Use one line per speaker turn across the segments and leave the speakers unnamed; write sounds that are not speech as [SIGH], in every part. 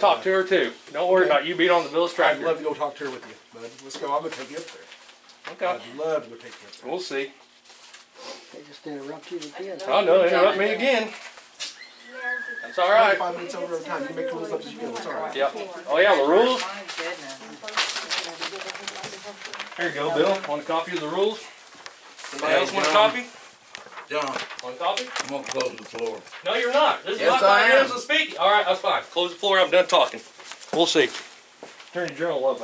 Talk to her too. Don't worry about you being on the Bills
I'd
tractor.
love to go talk to her with you, bud. Let's go. I'm gonna take you up there.
okay.
I'd love to go take you up there.
We'll see.
They just interrupt you again.
Oh no, interrupt me again. That's all right.
Five minutes over every time. You make rules up as you go. It's all right.
Yep. Oh yeah, the rules.
My goodness.
Here you go, Bill. Want a copy of the rules? Anybody else want a copy?
John,
Want a copy?
I'm gonna close the floor.
No, you're not. This is
Yes,
not my
I am.
rules of speaking. All right, that's fine. Close the floor. I'm done talking. We'll see. Attorney General love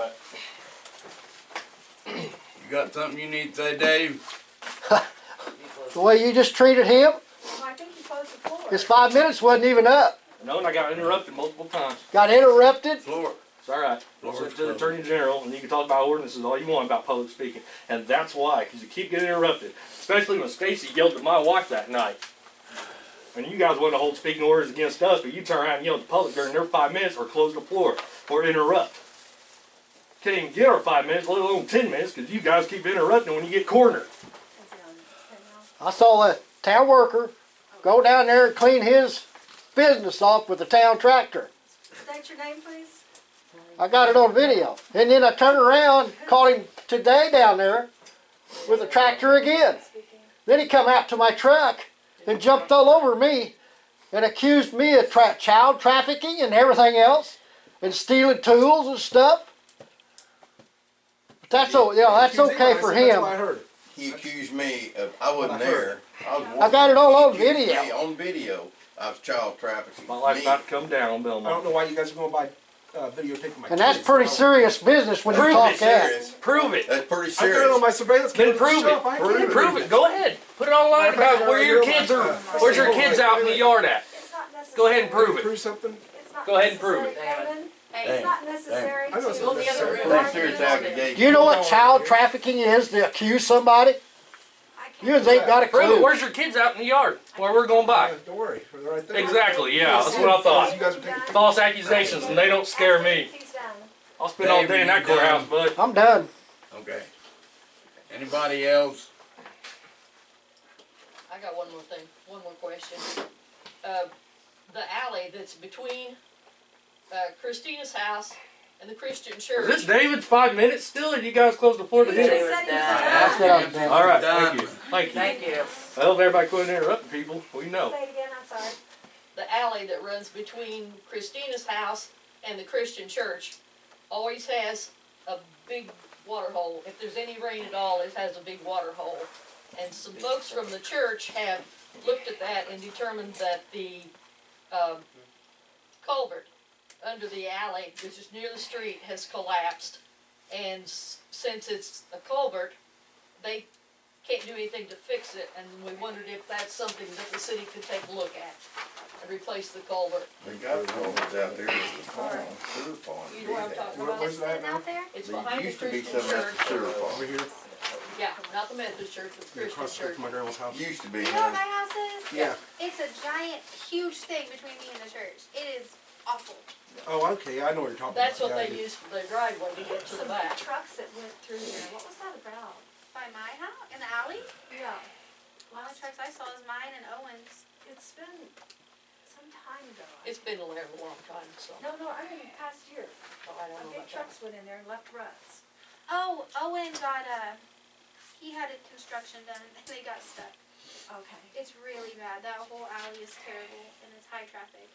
that.
You got something you need to say, Dave?
The way you just treated him,
I think you closed the floor.
his five minutes wasn't even up.
No, and I got interrupted multiple times.
Got interrupted.
Floor.
It's all right. We'll
Lord,
send it to the
Lord.
Attorney General, and you can talk about ordinances all you want about public speaking, and that's why, because you keep getting interrupted. Especially when Stacy yelled at my wife that night. And you guys want to hold speaking orders against us, but you turn around and yell at the public during their five minutes, or close the floor, or interrupt. Can't even get our five minutes, let alone ten minutes, because you guys keep interrupting when you get cornered.
I saw a town worker go down there and clean his business off with a town tractor.
State your name, please.
I got it on video. And then I turned around, caught him today down there with a tractor again. Then he come out to my truck and jumped all over me and accused me of tra- child trafficking and everything else and stealing tools and stuff. But that's o- you know, that's
Excuse me,
okay
I
for
said, That's
him.
what I heard.
He accused me of, I wasn't there. I was.
I got it all on
working. He accused me
video.
On video, I was child trafficking.
My life's
Me.
about to come down on
I don't
Belmont.
know why you guys are going by uh, videotaping my
And that's
kids.
pretty
I don't-
serious business when you
Prove
talk
it,
that.
Serious.
Prove it.
That's pretty
I got it on
serious.
my surveillance
Then
camera. at
prove
the shop. I
it.
can't
Prove it. Go ahead. Put it online about where your kids are. Where's your kids out in the yard at?
It's not necessary.
Go ahead and prove it.
Prove something.
It's not
Go ahead and prove
necessary,
it.
Ellen.
Hey,
It's not necessary
I know it's
to-
not Go in the other necessary.
Pretty serious allegation.
Do you know what child trafficking is to accuse somebody?
I can't-
You ain't got a
Prove it.
clue.
Where's your kids out in the yard where we're going by?
Uh, Don't worry. They're right there.
Exactly. Yeah, that's what I thought.
You guys are taking
False accusations, and they don't scare me.
He's done.
I'll spend all day in that courthouse, bud.
I'm done.
Okay. Anybody else?
I got one more thing, one more question. Uh, the alley that's between, uh, Christina's house and the Christian
Is
church.
this David's five minutes still, or you guys close the floor to
He
David.
him?
just said he was
That's
done.
what I'm doing.
All right.
Done.
Thank you. Thank you.
Thank you.
I hope everybody quit interrupting people. We know.
Say it again, I'm sorry.
The alley that runs between Christina's house and the Christian church always has a big water hole. If there's any rain at all, it has a big water hole. And some folks from the church have looked at that and determined that the, um, culvert under the alley, which is near the street, has collapsed. And s- since it's a culvert, they can't do anything to fix it, and we wondered if that's something that the city could take a look at and replace the culvert.
They got culverts out there. It's a pond, sewer pond.
You know what I'm talking
Where-
about?
where's that
Sitting
now?
out there?
It's
There
behind the
used to be
Christian
some at the
church.
sewer
over
pond.
here.
Yeah, not the Methodist church, but the
Yeah, Across the
Christian
street
church.
from my grandma's house.
Used to be,
You know what my
huh?
house is?
Yeah.
It's a giant, huge thing between me and the church. It is awful.
Oh, okay. I know what you're talking
That's
about.
what
Yeah, I
they
do.
use for the driveway to get to the
Some
back.
Trucks that went through there. What was that about?
By my house, in the alley?
Yeah.
One of the trucks I saw was mine and Owen's.
It's been some time ago.
It's been a long, long time, so
No, no, I mean, past year.
I
A
don't know
big
about that.
trucks went in there and left ruts.
Oh, Owen got a, he had a construction done and [LAUGHS] they got stuck.
Okay.
It's really bad. That whole alley is terrible and it's high traffic.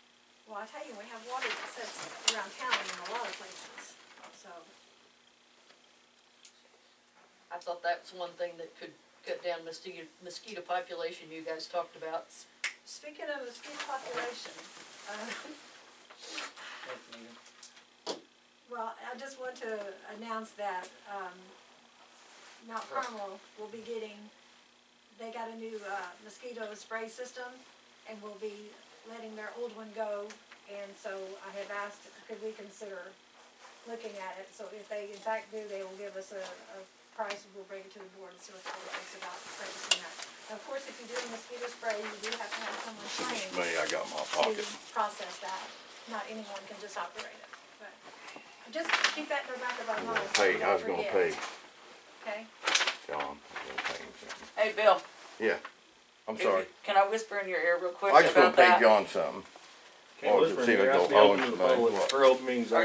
Well, I tell you, we have water that sits around town in a lot of places, so.
I thought that was one thing that could cut down mosquito, mosquito population you guys talked about.
Speaking of mosquito population, uh, well, I just want to announce that, um, Mount Carmel will be getting, they got a new, uh, mosquito spray system and will be letting their old one go. And so I have asked, could we consider looking at it? So if they in fact do, they will give us a, a price and we'll bring it to the board and see what the board thinks about purchasing that. Of course, if you do a mosquito spray, you do have to have someone trained
Me, I got my
to
pocket.
process that. Not anyone can just operate it, but just keep that in the back of our minds. so we
Hey, I
don't
was gonna
forget,
pay
Okay?
John. I was gonna pay him something.
Hey, Bill.
Yeah, I'm
if-
sorry.
Can I whisper in your ear real quick
I just gonna
about
pay
that?
John something.
Can't
Well,
whisper in
see if
here.
it
It has to be
don't
open
always
to the
matter
public.
what.
Or open meetings. act.